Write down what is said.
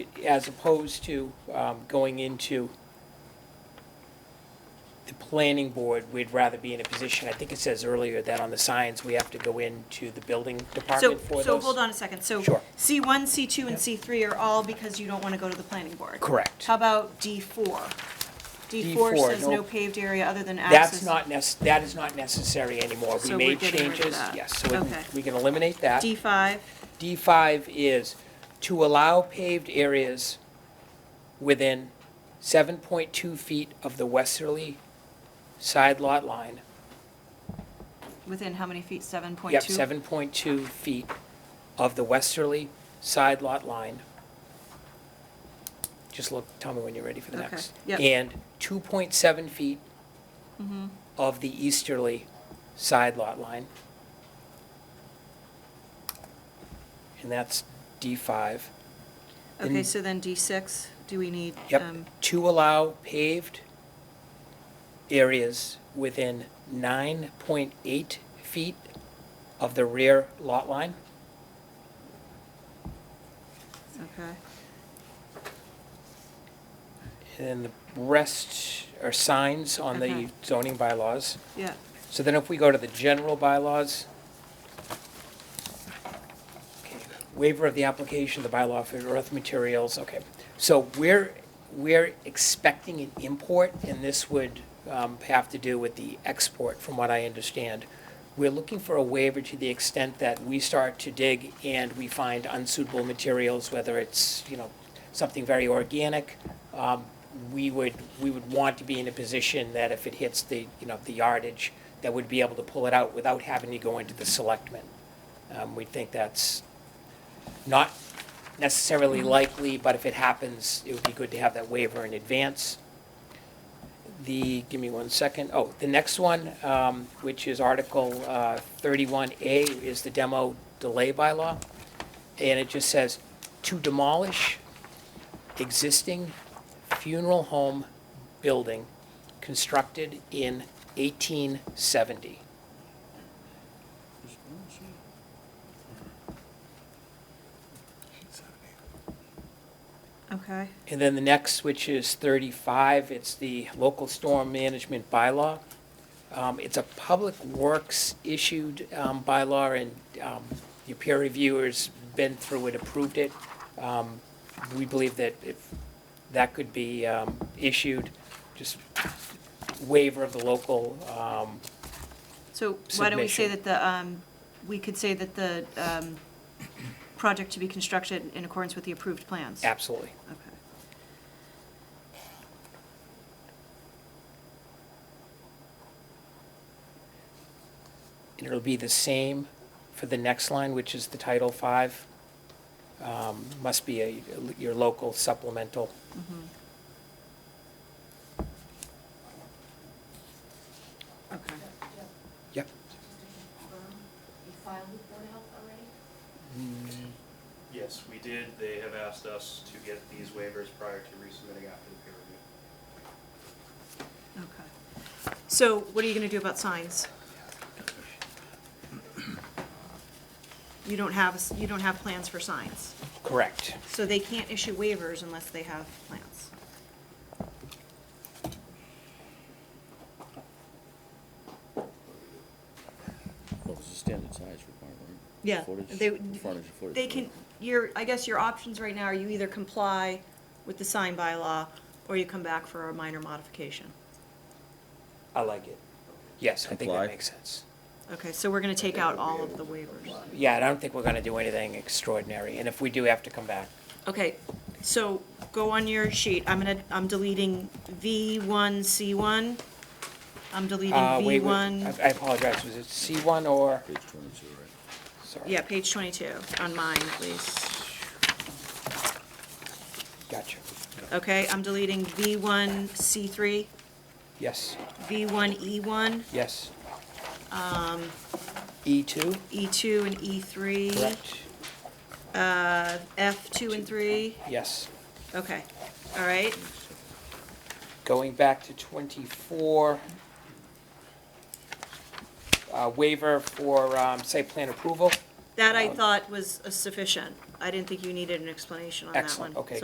as opposed to um, going into the planning board, we'd rather be in a position, I think it says earlier that on the signs, we have to go into the building So, department for those. so hold on a second, so Sure. C1, C2, and C3 are all because you don't want to go to the planning board? Correct. How about D4? D4 D4, says no- no paved area other than access. That's not nec, that is not necessary anymore. We So made we're getting rid of changes, that. yes, so we Okay. can- we can eliminate that. D5, D five is to allow paved areas within seven point two feet of the westerly side lot line. within how many feet, 7.2? Yep, seven point two feet of the westerly side lot line. Just look, tell me when you're ready for the Okay, next. yep. And two point seven feet Mm-hmm. of the easterly side lot line. And that's D five. Okay, so then D6, do we need? um, Yep, to allow paved areas within 9.8 feet of the rear lot line. Okay, And then the rest are signs on the Okay. zoning bylaws. yeah, So then if we go to the general bylaws, okay, waiver of the application, the bylaw for earth materials, okay. So we're, we're expecting an import, and this would um, have to do with the export, from what I understand. We're looking for a waiver to the extent that we start to dig and we find unsuitable materials, whether it's, you know, something very organic, um, we would, we would want to be in a position that if it hits the, you know, the yardage, that we'd be able to pull it out without having to go into the selectmen. Um, we think that's not necessarily likely, but if it happens, it would be good to have that waiver in advance. The, give me one second, oh, the next one, um, which is Article, uh, thirty-one A, is the demo delay bylaw. And it just says, to demolish existing funeral home building constructed in eighteen seventy. okay, And then the next, which is 35, it's the local storm management bylaw. Um, It's a Public Works issued um, bylaw, and um, your peer reviewer's been through it, approved it. Um, We believe that if that could be um, issued, just waiver of the local, um, so why don't we say Submission. that the, um, we could say that the um, project to be constructed in accordance with the approved plans? absolutely. Okay. And it'll be the same for the next line, which is the Title Five. Um, Must be a, your local supplemental. Mm-hmm. Okay. Yep. You filed with Board of Health already? Yes, we did. They have asked us to get these waivers prior to resubmitting after the peer review. Okay. So what are you gonna do about signs? You don't have, a s- you don't have plans for signs, Correct. so they can't issue waivers unless they have plans. Well, it's a standard size requirement. Yeah, Footage, they- frontage, footage. They can, your, I guess your options right now are you either comply with the sign bylaw or you come back for a minor modification. I like it. Yes, I think that Comply. makes sense. Okay, so we're gonna take out all of the waivers. Yeah, and I don't think we're gonna do anything extraordinary, and if we do have to come back, Okay, so go on your sheet, I'm gonna, I'm deleting V one, C one. I'm uh, deleting wait, V wait, one. I I apologize, was it C one or, Page twenty-two, right? sorry. Yeah, page 22, on mine at least. Gotcha. Okay, I'm deleting V1, C3, Yes, V1, E1, yes. E two, E2, um, and E3, correct? uh, F2 and 3. Yes. Okay, all right, Going back to 24, uh, waiver for um, site plan approval. Um, that I thought was sufficient. I didn't think you needed an explanation on that one. Excellent, okay,